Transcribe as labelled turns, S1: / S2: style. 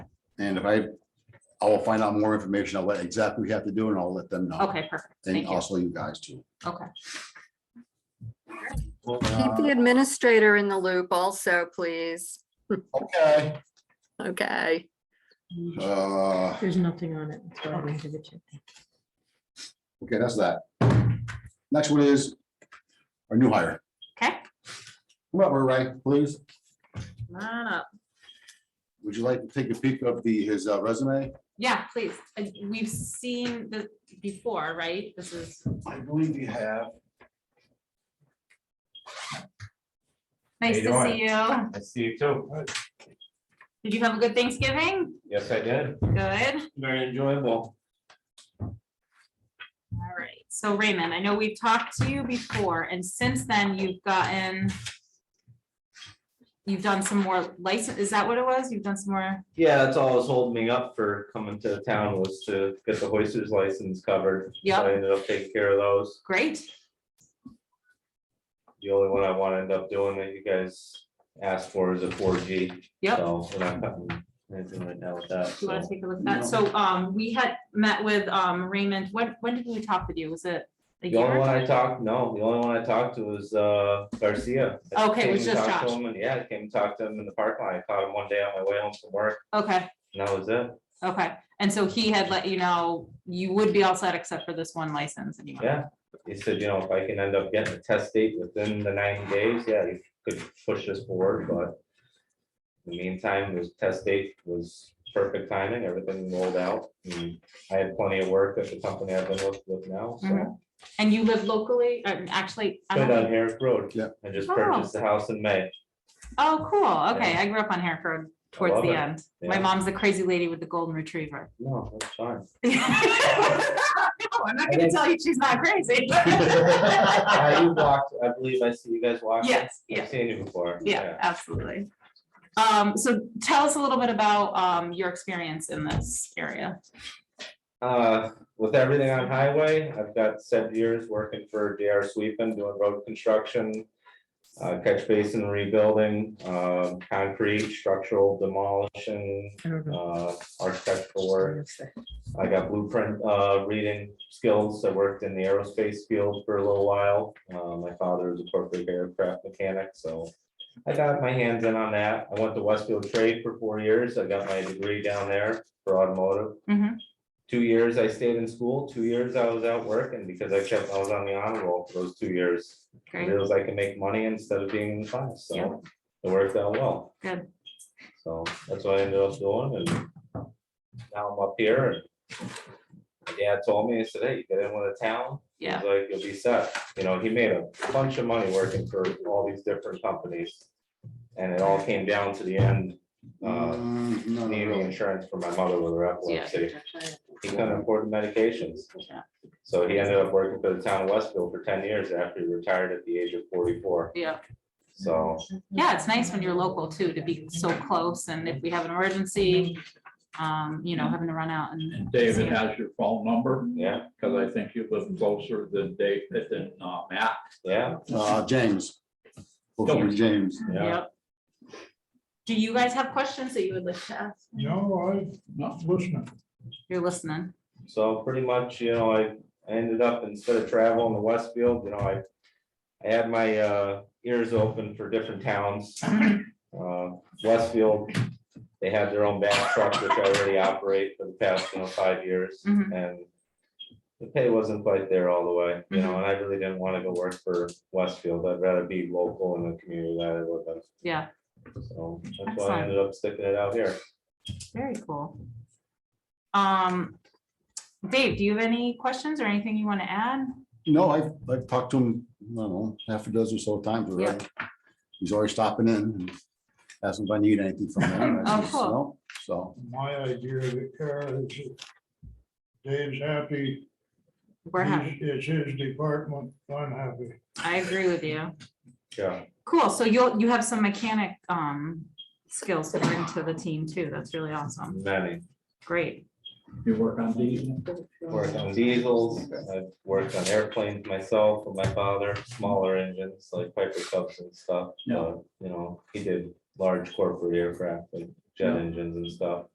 S1: And if I, I will find out more information on what exactly we have to do and I'll let them know.
S2: Okay, perfect.
S1: And
S2: Thank you.
S1: also you guys too.
S2: Okay.
S3: Keep the
S1: Uh,
S3: administrator in the loop also, please.
S1: Uh, Okay,
S3: Okay,
S1: uh,
S4: There's nothing on it. That's why I didn't give it to you.
S1: okay, that's that. Next one is our new hire.
S2: Okay.
S1: Come up, Ray, please.
S2: Come on up.
S1: Would you like to take a peek of the, his uh, resume?
S2: Yeah, please. And We've seen this before, right? This is
S1: I believe you have.
S2: nice
S5: you
S2: to
S5: doing?
S2: see you.
S5: I see you too.
S2: Did you have a good Thanksgiving?
S5: Yes, I did.
S2: Good.
S5: Very enjoyable.
S2: All right. So Raymond, I know we've talked to you before and since then you've gotten you've done some more license, is that what it was? You've done some more?
S5: Yeah, that's all was holding me up for coming to town was to get the hoisters license covered. So
S2: Yep.
S5: I ended up taking care of those.
S2: Great.
S5: The only one I want to end up doing that you guys asked for is a four G.
S2: Yep.
S5: So we're not cutting anything right now with that.
S2: Do you want to
S5: so.
S2: take a look at that?
S1: No.
S2: So um, we had met with um Raymond, when, when did we talk with you? Was it? a
S5: The only
S2: year?
S5: one I talked, no, the only one I talked to was uh, Garcia. I
S2: Okay, it was
S5: came and
S2: just
S5: talked to
S2: Josh.
S5: him and- Yeah, I came and talked to him in the park line. I caught him one day on my way home from work
S2: Okay,
S5: and that was it.
S2: okay. And so he had let you know you would be all set except for this one license. and you want-
S5: Yeah, he said, you know, if I can end up getting a test date within the ninety days, yeah, you could push this forward, but. In the meantime, this test date was perfect timing, everything rolled out. and I had plenty of work at the company I've been with with now,
S2: Mhm.
S5: so.
S2: And you live locally, uh, actually? I
S5: Been
S2: don't-
S5: on Harris Road.
S1: Yeah.
S5: I just
S2: Oh.
S5: purchased the house in May.
S2: Oh, cool. Okay,
S5: Yeah.
S2: I grew up on Herrick Road towards
S5: love
S2: the
S5: it.
S2: end. My
S5: Yeah.
S2: mom's the crazy lady with the golden retriever.
S5: No, that's fine.
S2: No, I'm not gonna tell you she's not crazy.
S5: I walked, I believe I see you guys walked.
S2: Yes, yes.
S5: I've seen you before.
S2: Yeah, absolutely. Um, so tell us a little bit about, um, your experience in this area.
S5: Uh, with everything on highway, I've got seven years working for DR Sweepin, doing road construction. Uh, catch basin rebuilding, uh, concrete, structural demolition,
S4: I don't know.
S5: uh, architectural work.
S4: Just a second.
S5: I got blueprint, uh, reading skills. I worked in the aerospace field for a little while. Uh, my father was a perfect aircraft mechanic, so. I got my hands in on that. I went to Westfield Trade for four years. I got my degree down there for automotive
S2: Mhm.
S5: two years I stayed in school, two years I was out working because I kept, I was on the honor roll for those two years. I
S2: Great,
S5: realized I could make money instead of being in class,
S2: Yeah.
S5: so it worked out well.
S2: Good.
S5: So that's what I ended up doing and now I'm up here and my dad told me, he said, hey, you get in with a town, he's
S2: yeah,
S5: like, you'll be set. You know, he made a bunch of money working for all these different companies. And it all came down to the end, uh,
S1: Mm, no, no,
S5: needing
S1: no.
S5: insurance for my mother with her
S2: yeah.
S5: epilepsy. He couldn't afford the medications,
S2: Yeah.
S5: so he ended up working for the town of Westville for ten years after he retired at the age of forty-four.
S2: Yeah,
S5: So,
S2: yeah, it's nice when you're local too, to be so close and if we have an emergency, um, you know, having to run out and.
S6: And David has your phone number,
S5: yeah,
S6: because I think you live closer than Dave, than uh, Matt.
S5: yeah,
S1: Uh, James. Hopefully James.
S5: yeah.
S2: Yep. Do you guys have questions that you would like to ask?
S7: No, I'm not listening.
S2: You're listening.
S5: So pretty much, you know, I I ended up, instead of traveling to Westfield, you know, I, I had my uh, ears open for different towns. Uh, Westfield, they had their own back truck, which I already operate for the past, you know, five years.
S2: Mhm.
S5: And the pay wasn't quite there all the way, you know, and I really didn't want to go work for Westfield. I'd rather be local in the community that I live in.
S2: Yeah,
S5: So that's why
S2: Excellent.
S5: I ended up sticking it out here.
S2: very cool. Um, Dave, do you have any questions or anything you want to add?
S1: No, I've, I've talked to him, I don't know, half a dozen or so times already. He's always stopping in and asking if I need anything from him. I
S2: Oh,
S1: says,
S2: cool.
S1: "No." So,
S7: My idea of it, uh, is Dave's happy.
S2: We're happy.
S7: It's it's his department. I'm happy.
S2: I agree with you.
S5: Yeah,
S2: Cool. So you'll, you have some mechanic, um, skills to bring to the team too. That's really awesome.
S5: many.
S2: Great.
S6: You work on diesel?
S5: Worked on diesels, I've worked on airplanes myself with my father, smaller engines like Piper Cubs and stuff. Uh,
S6: Yeah.
S5: but, You know, he did large corporate aircraft and jet
S6: Yeah.
S5: engines and stuff.